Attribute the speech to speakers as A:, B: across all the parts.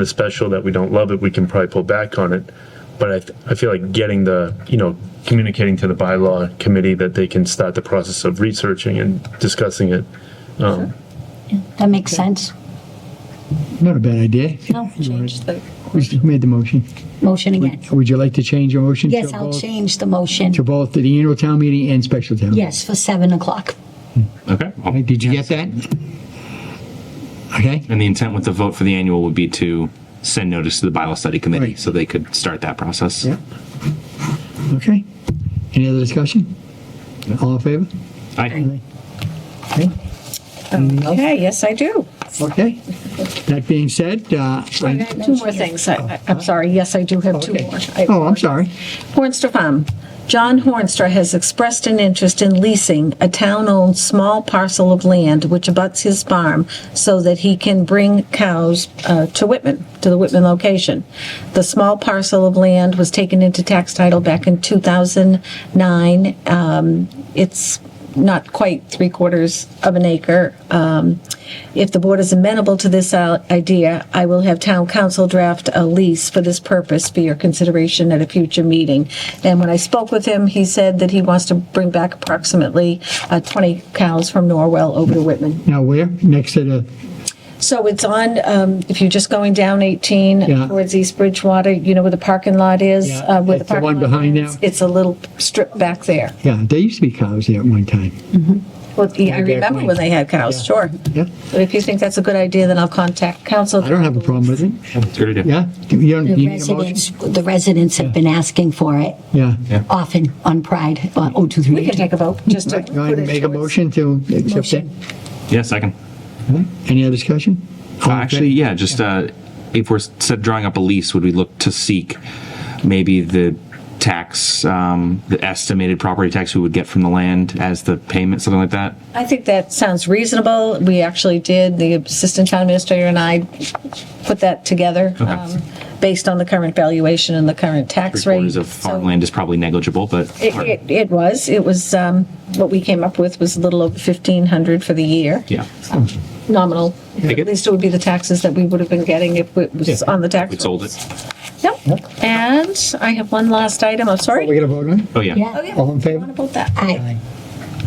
A: a special that we don't love it, we can probably pull back on it. But I, th- I feel like getting the, you know, communicating to the bylaw committee that they can start the process of researching and discussing it. Um,
B: That makes sense.
C: Not a bad idea.
B: No, change the
C: Who's- Who made the motion?
B: motion again.
C: Would you like to change your motion? to
B: Yes, I'll
C: both-
B: change the motion.
C: To both the annual town meeting and special town? meeting?
B: Yes, for seven o'clock.
D: Okay.
C: All right, Did you get that? Okay,
D: And the intent with the vote for the annual would be to send notice to the bylaw study committee
C: Right.
D: so they could start that process.
C: Yeah. okay. Any other discussion? All in favor?
D: Aye.
C: Okay. Anything else?
E: Okay, yes, I do.
C: Okay. That being said, uh,
E: I
C: I-
E: got two more things. I- I- I'm sorry, yes, I do have two
C: okay.
E: more.
C: Oh, I'm sorry.
E: Hornstra Farm. John Hornstra has expressed an interest in leasing a town-owned small parcel of land which abuts his farm so that he can bring cows uh, to Whitman, to the Whitman location. The small parcel of land was taken into tax title back in 2009. Um, It's not quite three-quarters of an acre. Um, If the board is amenable to this al- idea, I will have town council draft a lease for this purpose for your consideration at a future meeting. And when I spoke with him, he said that he wants to bring back approximately uh, 20 cows from Norwell over to Whitman.
C: Now where? Next to the,
E: So it's on, um, if you're just going down 18
C: Yeah.
E: towards East Bridgewater, you know where the parking lot is?
C: Yeah,
E: uh, where
C: it's the one
E: parking lot
C: behind
E: is?
C: now.
E: It's a little strip back there.
C: yeah, there used to be cows there at one time.
E: Well, I
C: back
E: remember
C: when.
E: when they had cows, sure.
C: Yeah,
E: But if you think that's a good idea, then I'll contact council.
C: I don't have a problem with it.
D: It's a Good idea.
C: Yeah? Do you don't- do
B: The
C: you need a motion?
B: residents, the residents have been asking for it
C: Yeah.
B: often on Pride, uh, oh, two,
E: We
B: three,
E: can
B: eight.
E: take a vote, just
C: Go
E: to.
C: ahead and
E: put it
C: make a
E: towards-
C: motion to accept that.
B: Motion.
D: Yeah, second.
C: Any other discussion?
D: Uh, Actually, yeah, just uh, if we're set drawing up a lease, would we look to seek maybe the tax, um, the estimated property tax we would get from the land as the payment, something like that?
E: I think that sounds reasonable. We actually did, the assistant town administrator and I put that together
D: Okay.
E: um, based on the current valuation and the current tax rate.
D: Three-quarters of
E: So
D: farmland is probably negligible, but
E: It, it- it was, it was, um, what we came up with was a little over 1,500 for the year.
D: yeah,
E: Nominal.
D: I
E: At
D: get-
E: least it would be the taxes that we would have been getting if it was on the tax.
D: we sold
E: rolls.
D: it.
E: Yep. And I have one last item, I'm sorry.
C: We're going to vote on it?
D: Oh, yeah.
B: Yeah.
E: Oh, yeah.
C: All in favor?
E: What about that?
B: Aye.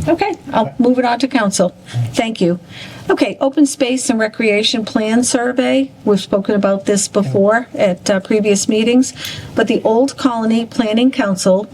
E: Okay, I'll move it on to council. Thank you. Okay, open space and recreation plan survey. We've spoken about this before at uh, previous meetings, but the Old Colony Planning Council,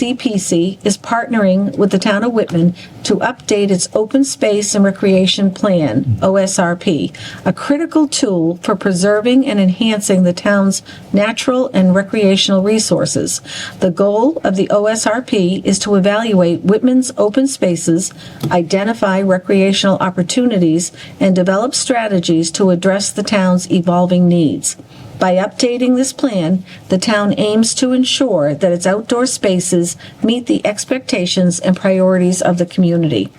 E: OCPC, is partnering with the town of Whitman to update its open space and recreation plan, OSRP, a critical tool for preserving and enhancing the town's natural and recreational resources. The goal of the OSRP is to evaluate Whitman's open spaces, identify recreational opportunities, and develop strategies to address the town's evolving needs. By updating this plan, the town aims to ensure that its outdoor spaces meet the expectations and priorities of the community.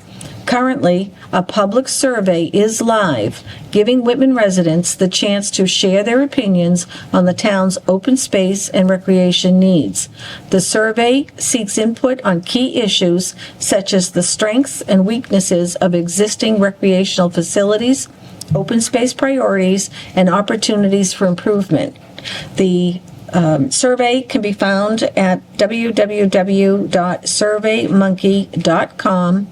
E: Currently, a public survey is live, giving Whitman residents the chance to share their opinions on the town's open space and recreation needs. The survey seeks input on key issues such as the strengths and weaknesses of existing recreational facilities, open space priorities, and opportunities for improvement. The um, survey can be found at www.surveymonkey.com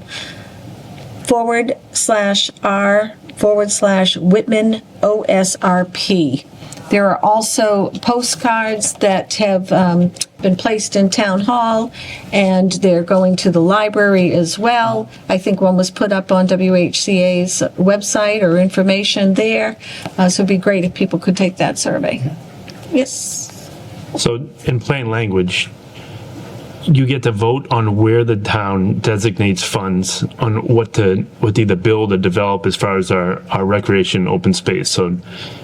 E: forward slash R forward slash Whitman OSRP. There are also postcards that have um, been placed in Town Hall, and they're going to the library as well. I think one was put up on WHCA's website or information there. Uh, so it'd be great if people could take that survey. Yes.
A: So in plain language, you get to vote on where the town designates funds on what to, what to either build or develop as far as our, our recreation open space. So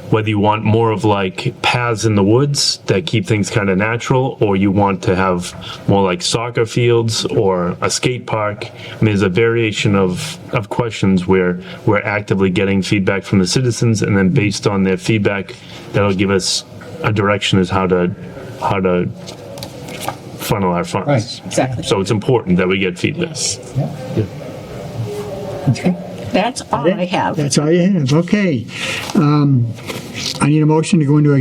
A: whether you want more of like paths in the woods that keep things kind of natural, or you want to have more like soccer fields or a skate park. I mean, there's a variation of, of questions where we're actively getting feedback from the citizens and then based on their feedback, that'll give us a direction as how to, how to funnel our funds.
C: Right.
E: Exactly.
A: So it's important that we get feedback.
E: That's all I have.
C: That's all you have, okay. Um, I need a motion to go into executive